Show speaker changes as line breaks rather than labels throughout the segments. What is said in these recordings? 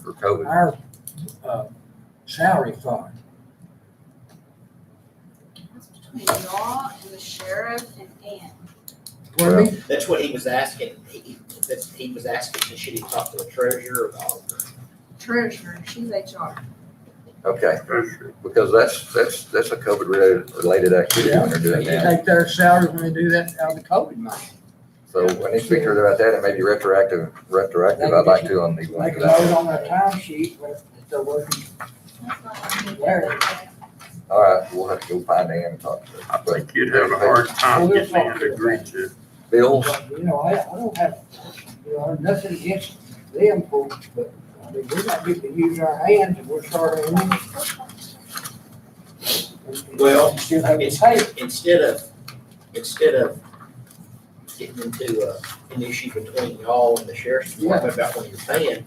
for COVID.
our uh, salary fund.
That's between y'all and the sheriff and Ann.
Pardon me?
That's what he was asking. He, that's, he was asking, should he talk to the treasurer or the auditor?
Treasurer, she's HR.
Okay, because that's, that's, that's a COVID related, related activity when they're
They
doing that.
take their salary when they do that out of the COVID money.
So I need to speak to her about that and maybe retroactive, retroactive, I'd like to on the.
Make a note on their time sheet with the working.
That's not me.
Where?
All right, we'll have to go find Ann and talk to her.
I think you'd have a hard time getting them to agree to it.
Bills,
You know, I, I don't have, you know, nothing against them folks, but I mean, we're not getting to use our hands and we're starting.
Well,
Still have to pay.
Instead of, instead of getting into, uh, an issue between y'all and the sheriff's department about what you're paying,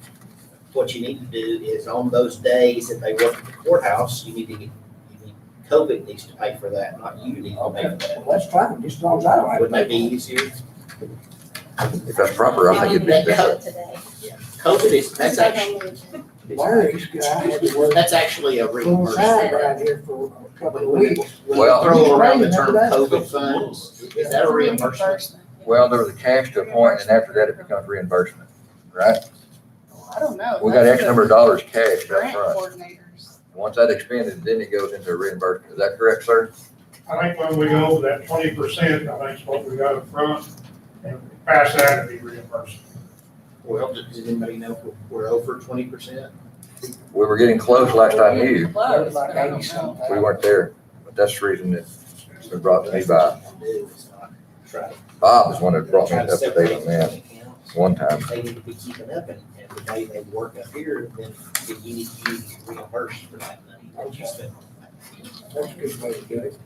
what you need to do is on those days that they work at the courthouse, you need to get, you need, COVID needs to pay for that, not you need to pay for
Okay,
that.
well, that's fine, just as long as I don't have to.
Wouldn't that be easier?
if that's proper, I think it'd be better.
Today.
COVID is, that's actually,
Larry's guy had to work
that's actually a
full
reimbursement.
time
right?
out here for a couple of
When we-
weeks.
when we
Well-
throw around the
Right,
term
that's-
COVID funds, is that a reimbursement?
Well, there was a cash to a point and after that it becomes reimbursement, right?
I don't know.
We got X
extra
number of dollars cash up
Grant
front.
coordinators.
Once that expended, then it goes into reimbursement. Is that correct, sir?
I think when we go over that twenty percent, I think it's what we got up front, and pass that and be reimbursed.
Well, does does anybody know if we're over twenty percent?
We were getting close last I knew.
Close, but I don't know.
We weren't there, but that's the reason that it's been brought to me by, Bob is one that brought me up to date on that one time.
They need to be keeping up and, and the day they work up here, then you need to be reimbursed for that money that you spent.
That's a good way to do it.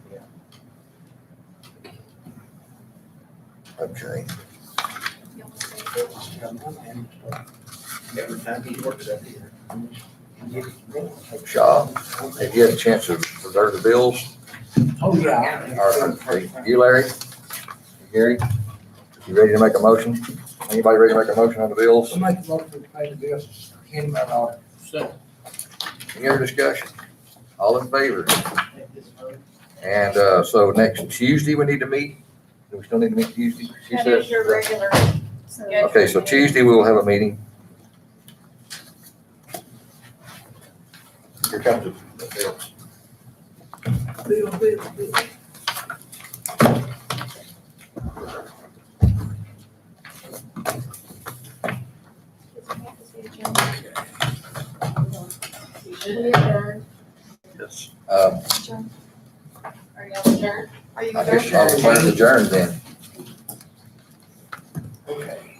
Okay.
uh, Every time he works up here.
Oh,
Shaw, have you had a chance to observe the bills?
Oh, yeah.
Or, you, Larry? Gary? You ready to make a motion? Anybody ready to make a motion on the bills?
I'll make a motion to pay the bills, hand them out all.
Any other discussion? All in favor? And, uh, so next Tuesday we need to meet? Do we still need to meet Tuesday? She
That
says.
is your regular. scheduled
Okay, so
meeting.
Tuesday we will have a meeting. Here comes the bills.
Bill, bill, bill.
We adjourn.
Yes. Um,
Are y'all adjourned? Are you
I guess I'll declare it adjourned then.
Okay.